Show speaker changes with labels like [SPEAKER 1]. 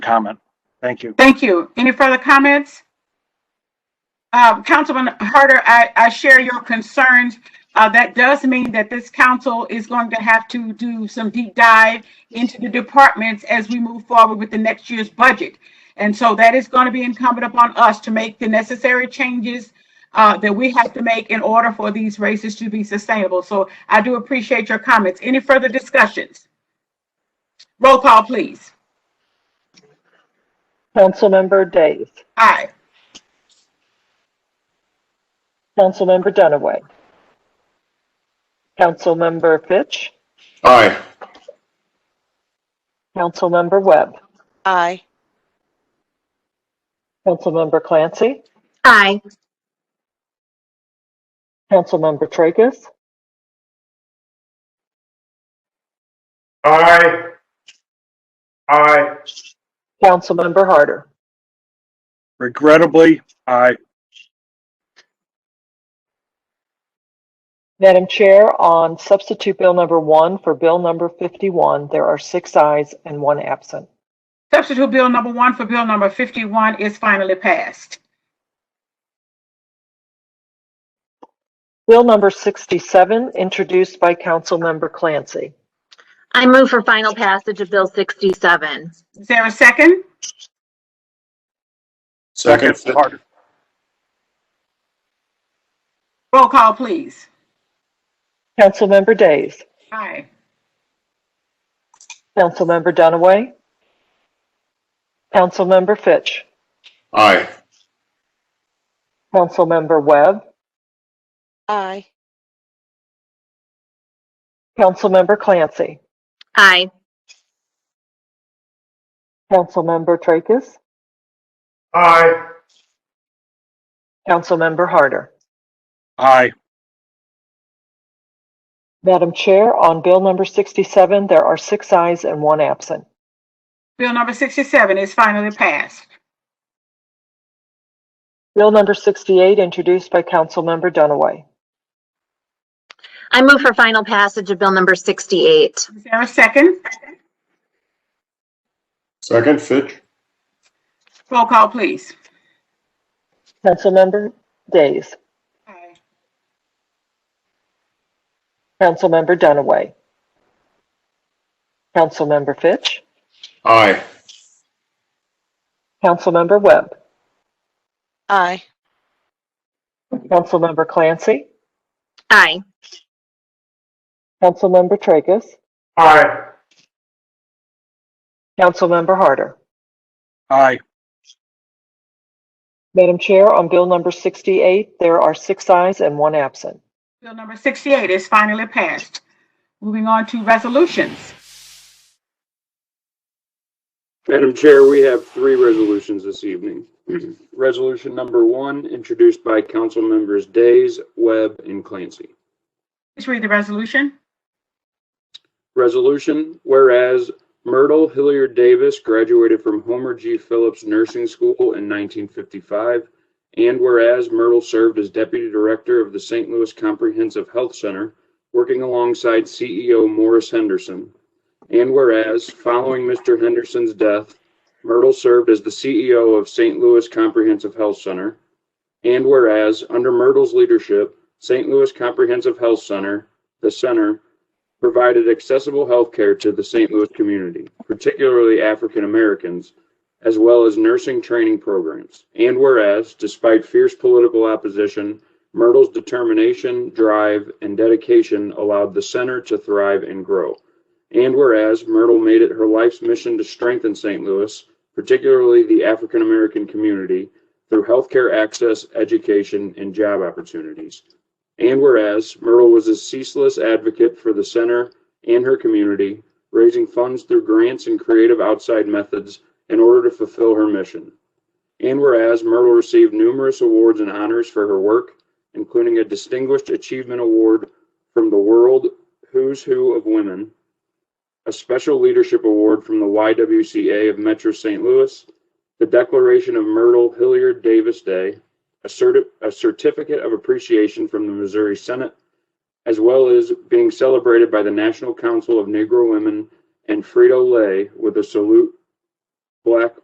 [SPEAKER 1] comment. Thank you.
[SPEAKER 2] Thank you. Any further comments? Um, Councilman Harder, I, I share your concerns. Uh, that does mean that this council is going to have to do some deep dive into the departments as we move forward with the next year's budget. And so that is going to be incumbent upon us to make the necessary changes uh, that we have to make in order for these races to be sustainable. So I do appreciate your comments. Any further discussions? Roll call, please.
[SPEAKER 3] Councilmember Days.
[SPEAKER 2] Aye.
[SPEAKER 3] Councilmember Dunaway. Councilmember Fitch.
[SPEAKER 4] Aye.
[SPEAKER 3] Councilmember Webb.
[SPEAKER 5] Aye.
[SPEAKER 3] Councilmember Clancy.
[SPEAKER 6] Aye.
[SPEAKER 3] Councilmember Tracus.
[SPEAKER 4] Aye. Aye.
[SPEAKER 3] Councilmember Harder.
[SPEAKER 1] Regrettably, I,
[SPEAKER 3] Madam Chair, on substitute bill number one for bill number 51, there are six ayes and one absent.
[SPEAKER 2] Substitute Bill number one for Bill number 51 is finally passed.
[SPEAKER 3] Bill number 67, introduced by Councilmember Clancy.
[SPEAKER 6] I move for final passage of Bill 67.
[SPEAKER 2] Is there a second?
[SPEAKER 4] Second. Fitch.
[SPEAKER 2] Roll call, please.
[SPEAKER 3] Councilmember Days.
[SPEAKER 2] Aye.
[SPEAKER 3] Councilmember Dunaway. Councilmember Fitch.
[SPEAKER 4] Aye.
[SPEAKER 3] Councilmember Webb.
[SPEAKER 5] Aye.
[SPEAKER 3] Councilmember Clancy.
[SPEAKER 6] Aye.
[SPEAKER 3] Councilmember Tracus.
[SPEAKER 4] Aye.
[SPEAKER 3] Councilmember Harder.
[SPEAKER 1] I,
[SPEAKER 3] Madam Chair, on Bill number 67, there are six ayes and one absent.
[SPEAKER 2] Bill number 67 is finally passed.
[SPEAKER 3] Bill number 68, introduced by Councilmember Dunaway.
[SPEAKER 6] I move for final passage of Bill number 68.
[SPEAKER 2] Is there a second?
[SPEAKER 4] Second, Fitch.
[SPEAKER 2] Roll call, please.
[SPEAKER 3] Councilmember Days.
[SPEAKER 2] Aye.
[SPEAKER 3] Councilmember Dunaway. Councilmember Fitch.
[SPEAKER 4] Aye.
[SPEAKER 3] Councilmember Webb.
[SPEAKER 5] Aye.
[SPEAKER 3] Councilmember Clancy.
[SPEAKER 6] Aye.
[SPEAKER 3] Councilmember Tracus.
[SPEAKER 4] Aye.
[SPEAKER 3] Councilmember Harder.
[SPEAKER 1] I,
[SPEAKER 3] Madam Chair, on Bill number 68, there are six ayes and one absent.
[SPEAKER 2] Bill number 68 is finally passed. Moving on to resolutions.
[SPEAKER 7] Madam Chair, we have three resolutions this evening. Resolution number one, introduced by council members Days, Webb, and Clancy.
[SPEAKER 2] Please read the resolution.
[SPEAKER 7] Resolution, whereas Myrtle Hilliard Davis graduated from Homer G. Phillips Nursing School in 1955, and whereas Myrtle served as Deputy Director of the St. Louis Comprehensive Health Center, working alongside CEO Morris Henderson, and whereas, following Mr. Henderson's death, Myrtle served as the CEO of St. Louis Comprehensive Health Center, and whereas, under Myrtle's leadership, St. Louis Comprehensive Health Center, the center, provided accessible health care to the St. Louis community, particularly African Americans, as well as nursing training programs. And whereas, despite fierce political opposition, Myrtle's determination, drive, and dedication allowed the center to thrive and grow. And whereas, Myrtle made it her life's mission to strengthen St. Louis, particularly the African American community, through healthcare access, education, and job opportunities. And whereas Myrtle was a ceaseless advocate for the center and her community, raising funds through grants and creative outside methods in order to fulfill her mission. And whereas Myrtle received numerous awards and honors for her work, including a Distinguished Achievement Award from the World Who's Who of Women, a Special Leadership Award from the YWCA of Metro St. Louis, the Declaration of Myrtle Hilliard Davis Day, a, certi- a certificate of appreciation from the Missouri Senate, as well as being celebrated by the National Council of Negro Women and Frito Lay with a salute Black